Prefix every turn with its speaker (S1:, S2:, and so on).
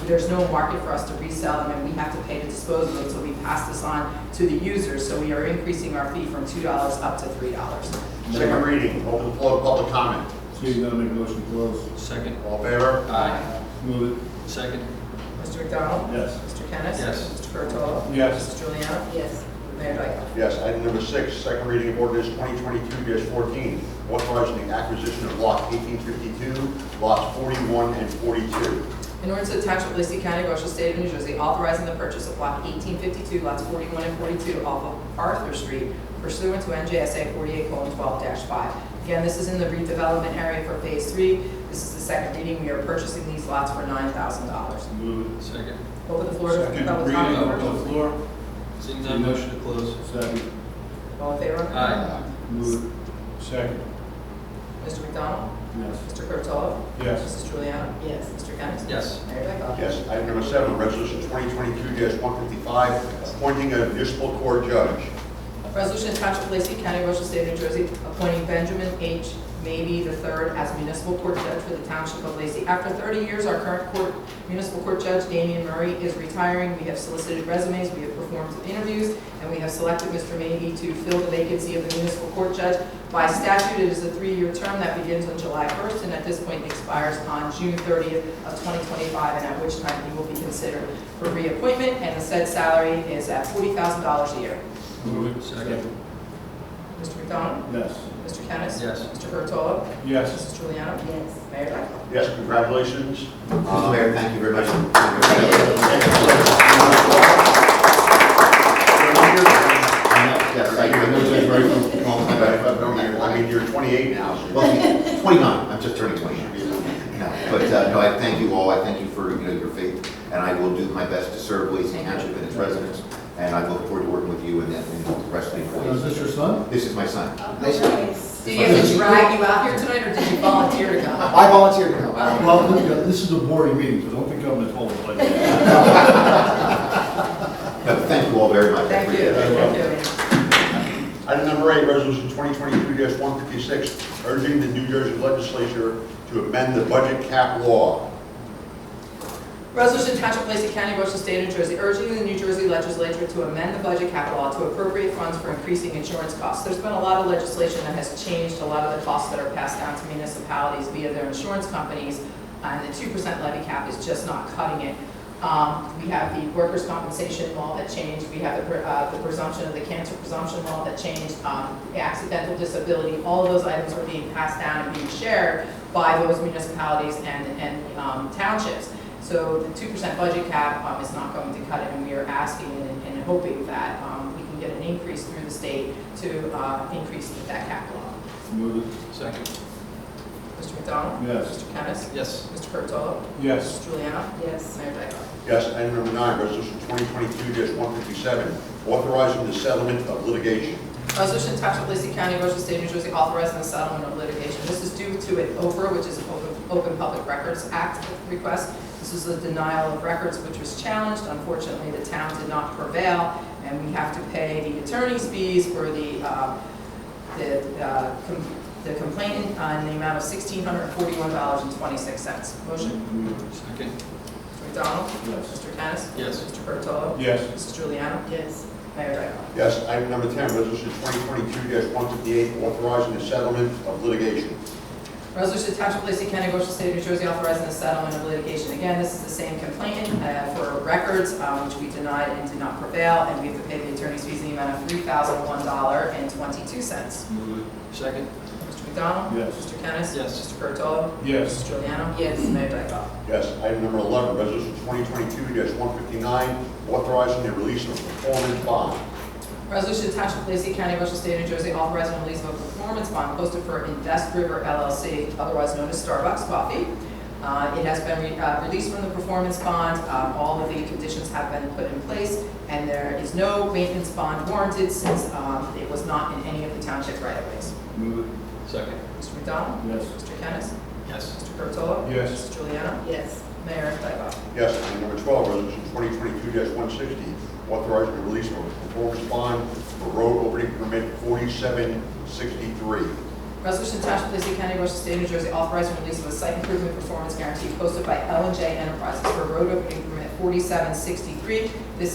S1: there's no market for us to resell them, and we have to pay to dispose of them, so we pass this on to the users. So we are increasing our fee from $2 up to $3.
S2: Second reading, open the floor to public comment.
S3: So you gotta make a motion to close.
S4: Second.
S2: All in favor?
S4: Aye.
S3: Move it.
S4: Second.
S1: Mr. McDonald?
S3: Yes.
S1: Mr. Kennis?
S4: Yes.
S1: Mr. Curatolo?
S3: Yes.
S1: Mrs. Juliana?
S5: yes,
S1: Mayor Dyckoff?
S2: Yes, item number six, second reading of ordinance twenty twenty-two fourteen, authorizing the acquisition of lot eighteen fifty-two, lots forty-one and forty-two.
S1: In order to attach of Lacey County, Ocean State of New Jersey, authorizing the purchase of block 1852, lots 41 and 42 off of Arthur Street pursuant to NJSA 48:12-5. Again, this is in the redevelopment area for Phase 3. This is the second reading. We are purchasing these lots for $9,000.
S3: Move
S4: Second.
S1: Open the floor to
S3: it.
S1: public
S3: Second reading
S1: comment.
S3: of the floor.
S4: Seeing none, motion to close.
S3: Second.
S1: All in favor?
S4: Aye.
S3: Move it. Second.
S1: Mr. McDonald?
S3: Yes.
S1: Mr. Curatolo?
S3: Yes.
S1: Mrs. Juliana?
S5: yes,
S1: Mr. Kennis?
S4: Yes.
S1: Mayor Dyckoff?
S2: Yes, item number seven, resolution twenty twenty-two one fifty-five, appointing a municipal court judge.
S1: Resolution attached to Lacey County, Ocean State, New Jersey, appointing Benjamin H. Maybe III as municipal court judge for the township of Lacey. After 30 years, our current court, municipal court judge, Damian Murray, is retiring. We have solicited resumes, we have performed some interviews, and we have selected Mr. Maybe to fill the vacancy of the municipal court judge. By statute, it is a three-year term that begins on July 1st and at this point expires on June 30th of 2025, and at which time he will be considered for reappointment, and the said salary is at $40,000 a year.
S3: Move it.
S4: Second.
S1: Mr. McDonald?
S3: Yes.
S1: Mr. Kennis?
S4: Yes.
S1: Mr. Curatolo?
S3: Yes.
S1: Mrs. Juliana?
S5: yes.
S1: Mayor Dyckoff?
S2: Yes, congratulations.
S6: Mayor, thank you very much. Yes, I I know Judge Murray from all the time.
S2: I mean, you're twenty-eight now, so.
S6: Well, 29, I'm just turning 29. No, But uh, no, I thank you all, I thank you for, you know, your faith, and I will do my best to serve Lacey Township and its residents, and I look forward to working with you and then- and the rest of
S3: Now,
S6: the
S3: Is
S6: employees.
S3: this your son?
S6: This is my son.
S5: Nice.
S1: Did you have to drag you out here tonight, or did you volunteer to come?
S6: I volunteer to help.
S3: Well, look, uh, this is a boring meeting, so don't think I'm gonna call it like that.
S6: But thank you all very much. I
S1: Thank
S6: appreciate
S1: you.
S6: it.
S1: Thank you.
S2: Item number eight, resolution 2022-156, urging the New Jersey legislature to amend the budget cap law.
S1: Resolution Township of Lacey County, Ocean State, New Jersey, urging the New Jersey Legislature to amend the budget cap law to appropriate funds for increasing insurance costs. There's been a lot of legislation that has changed a lot of the costs that are passed down to municipalities via their insurance companies, and the 2% levy cap is just not cutting it. Um, We have the workers' compensation law that changed, we have the pre- uh, the presumption of the cancer presumption law that changed, um, the accidental disability, all of those items are being passed down and being shared by those municipalities and and um, townships. So the two percent budget cap um, is not going to cut it, and we are asking and and hoping that um, we can get an increase through the state to uh, increase that cap law.
S3: Move it.
S4: Second.
S1: Mr. McDonald?
S3: Yes.
S1: Mr. Kennis?
S4: Yes.
S1: Mr. Curatolo?
S3: Yes.
S1: Mrs. Juliana?
S5: Yes.
S1: Mayor Dyckoff?
S2: Yes, item number nine, resolution 2022-157, authorizing the settlement of litigation.
S1: Resolution Township of Lacey County, Ocean State, New Jersey, authorizing the settlement of litigation. This is due to an OPRA, which is an Open- Open Public Records Act request. This is a denial of records which was challenged. Unfortunately, the town did not prevail, and we have to pay the attorney's fees for the, uh, the uh, com- the complainant uh, in the amount of $1,641.26. Motion,
S3: Move it.
S4: Second.
S1: Mr. McDonald?
S3: Yes.
S1: Mr. Kennis?
S4: Yes.
S1: Mr. Curatolo?
S3: Yes.
S1: Mrs. Juliana?
S5: Yes,
S1: Mayor Dyckoff?
S2: Yes, item number 10, resolution 2022-158, authorizing the settlement of litigation.
S1: Resolution to Township of Lacey County, Ocean State, New Jersey, authorizing the settlement of litigation. Again, this is the same complainant uh, for records, um, which we denied and did not prevail, and we have to pay the attorney's fees in the amount of $3,001.22. Mr.
S3: Move
S4: Second.
S1: McDonald?
S3: Yes.
S1: Mr. Kennis?
S4: Yes.
S1: Mr. Curatolo?
S3: it. Yes.
S1: Mrs. Juliana?
S5: Yes.
S1: Mayor Dyckoff?
S2: Yes, item number 11, resolution 2022-159, authorizing the release of performance bond.
S1: Resolution to Township of Lacey County, Ocean State, New Jersey, authorizing the release of a performance bond posted for Invest River LLC, otherwise known as Starbucks Coffee. Uh, It has been re- uh, released from the performance bond, Um, all of the conditions have been put in place, and there is no maintenance bond warranted since um, it was not in any of the township right-of-ways.
S3: Move it.
S4: Second.
S1: Mr. McDonald?
S3: Yes.
S1: Mr. Kennis?
S4: Yes.
S1: Mr. Curatolo?
S3: Yes.
S1: Mrs. Juliana?
S5: yes,
S1: Mayor Dyckoff?
S2: Yes, item number 12, resolution 2022-160, authorizing the release of a performance bond for road opening permit 4763.
S1: Resolution to Township of Lacey County, Ocean State, New Jersey, authorizing release of a site improvement performance guarantee posted by L and J Enterprises for road opening permit forty-seven sixty-three. This